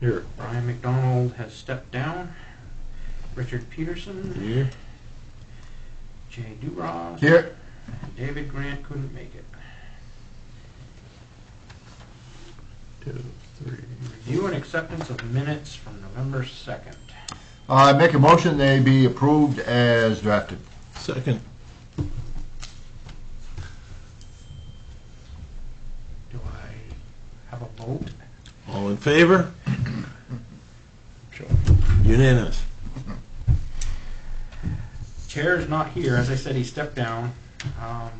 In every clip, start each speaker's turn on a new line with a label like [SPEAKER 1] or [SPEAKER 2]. [SPEAKER 1] Here.
[SPEAKER 2] Brian McDonald has stepped down. Richard Peterson,
[SPEAKER 1] Here.
[SPEAKER 2] Jay Duras.
[SPEAKER 1] Here.
[SPEAKER 2] David Grant couldn't make it.
[SPEAKER 1] Two, three.
[SPEAKER 2] Review and acceptance of minutes from November 2nd.
[SPEAKER 3] Uh, I make a motion they be approved as drafted.
[SPEAKER 1] Second.
[SPEAKER 2] Do I have a vote?
[SPEAKER 1] All in favor? Unanimous.
[SPEAKER 2] Chair is not here. As I said, he stepped down. Um,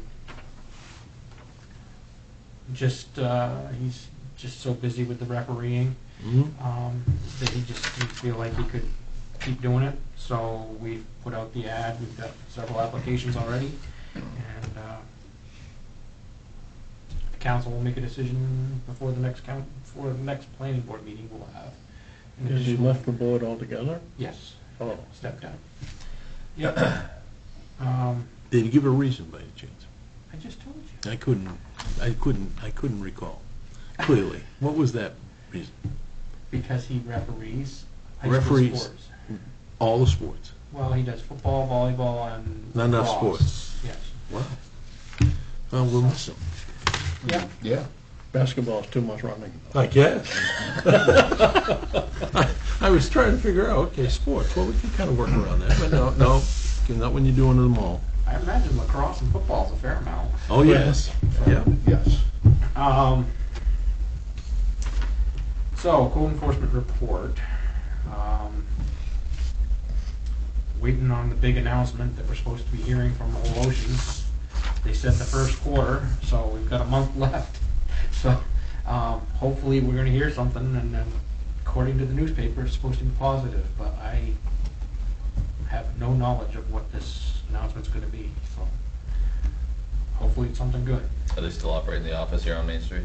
[SPEAKER 2] Just, uh, he's just so busy with the refereeing.
[SPEAKER 4] Hmm?
[SPEAKER 1] Mhm.
[SPEAKER 2] um, that he just didn't feel like he could keep doing it, so we've put out the ad, we've got several applications already, and, uh, the council will make a decision before the next coun, before the next planning board meeting we'll have. an
[SPEAKER 4] Because you
[SPEAKER 2] additional-
[SPEAKER 4] left the board altogether?
[SPEAKER 2] Yes,
[SPEAKER 4] Oh,
[SPEAKER 2] step down. Yep. Um,
[SPEAKER 1] Did he give a reason by any chance?
[SPEAKER 2] I just told you.
[SPEAKER 1] I couldn't, I couldn't, I couldn't recall clearly. What was that reason?
[SPEAKER 2] Because he referees high school
[SPEAKER 1] Referees.
[SPEAKER 2] sports.
[SPEAKER 1] All the sports.
[SPEAKER 2] Well, he does football, volleyball, and.
[SPEAKER 1] Not enough
[SPEAKER 2] lacrosse.
[SPEAKER 1] sports.
[SPEAKER 2] Yes.
[SPEAKER 1] Wow. Well, we'll miss him.
[SPEAKER 2] Yep.
[SPEAKER 3] Yeah.
[SPEAKER 4] basketball's too much running.
[SPEAKER 1] I guess. I- I was trying to figure out, okay, sports, well, we can kind of work around that, but no, no, not when you're doing them all.
[SPEAKER 2] I imagine lacrosse and football is a fair amount.
[SPEAKER 1] Oh, yes, yeah.
[SPEAKER 3] Yes.
[SPEAKER 2] Um, so, code enforcement report. Um, waiting on the big announcement that we're supposed to be hearing from Whole Oceans. They said the first quarter, so we've got a month left. So, um, hopefully we're gonna hear something and then according to the newspaper, it's supposed to be positive, but I have no knowledge of what this announcement's gonna be, so hopefully it's something good.
[SPEAKER 5] Are they still operating the office here on Main Street?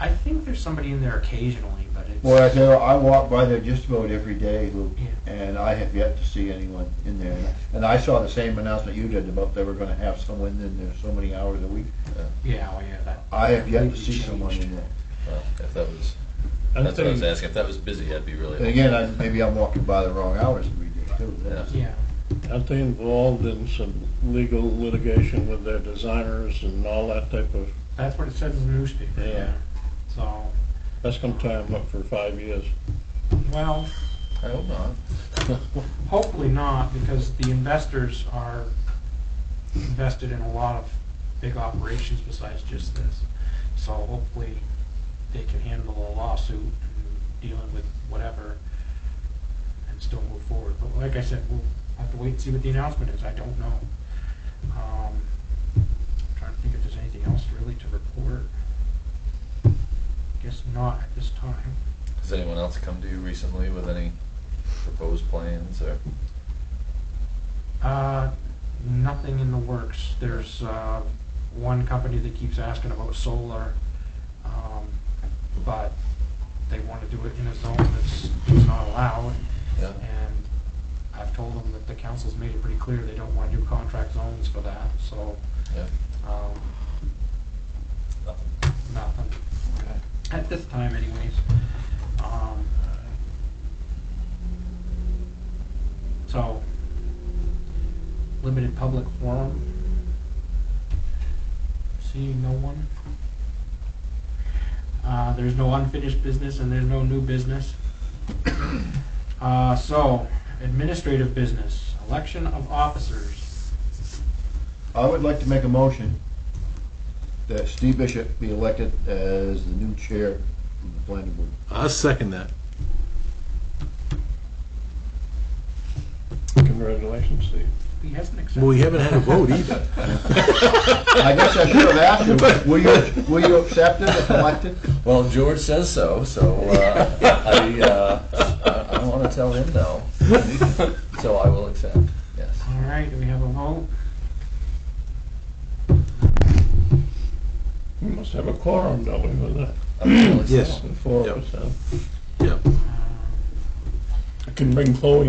[SPEAKER 2] I think there's somebody in there occasionally, but it's.
[SPEAKER 3] Boy, I tell you, I walk by there just about every day, Lou,
[SPEAKER 2] Yeah.
[SPEAKER 3] and I have yet to see anyone in there. And I saw the same announcement you did about they were gonna have someone in there so many hours a week.
[SPEAKER 2] Yeah, oh yeah, that.
[SPEAKER 3] I have yet to
[SPEAKER 2] completely
[SPEAKER 3] see someone
[SPEAKER 2] changed.
[SPEAKER 3] in there.
[SPEAKER 5] Well, if that was,
[SPEAKER 4] I
[SPEAKER 5] that's what I was
[SPEAKER 4] think-
[SPEAKER 5] asking. If that was busy, I'd be really.
[SPEAKER 3] And again, I, maybe I'm walking by the wrong hours every day too. That's-
[SPEAKER 2] Yeah,
[SPEAKER 4] Aren't they involved in some legal litigation with their designers and all that type of,
[SPEAKER 2] that's what it says in the newspaper,
[SPEAKER 4] Yeah.
[SPEAKER 2] yeah. So,
[SPEAKER 4] that's gonna tie them up for five years.
[SPEAKER 2] well,
[SPEAKER 5] I hope not.
[SPEAKER 2] hopefully not, because the investors are invested in a lot of big operations besides just this. So hopefully, they can handle a lawsuit and dealing with whatever and still move forward. But like I said, we'll have to wait and see what the announcement is, I don't know. Um, Trying to think if there's anything else really to report. Guess not at this time.
[SPEAKER 5] Has anyone else come to you recently with any proposed plans or?
[SPEAKER 2] Uh, nothing in the works. There's, uh, one company that keeps asking about solar, um, but they wanna do it in a zone that's, that's not allowed.
[SPEAKER 5] Yeah.
[SPEAKER 2] And I've told them that the council's made it pretty clear they don't wanna do contract zones for that, so,
[SPEAKER 5] Yeah.
[SPEAKER 2] um,
[SPEAKER 5] Nothing.
[SPEAKER 2] nothing. At this time anyways. Um, So, limited public forum. Seeing no one. Uh, there's no unfinished business and there's no new business. Uh, so, administrative business, election of officers.
[SPEAKER 3] I would like to make a motion that Steve Bishop be elected as the new chair of the planning board.
[SPEAKER 1] I'll second that.
[SPEAKER 4] Congratulations, Steve.
[SPEAKER 2] He hasn't accepted.
[SPEAKER 1] Well, we haven't had a vote either.
[SPEAKER 3] I guess I should have asked you, will you, will you accept it if elected?
[SPEAKER 5] Well, George says so, so uh, I, uh, I, I want to tell him no. So I will accept. Yes.
[SPEAKER 2] All right, do we have a vote?
[SPEAKER 4] We must have a quorum, don't we, with that?
[SPEAKER 5] I'm
[SPEAKER 1] Yes.
[SPEAKER 4] The Four
[SPEAKER 1] Yep.
[SPEAKER 2] Uh,
[SPEAKER 4] of us, huh?
[SPEAKER 1] Yeah.
[SPEAKER 2] Um,
[SPEAKER 4] I can bring Chloe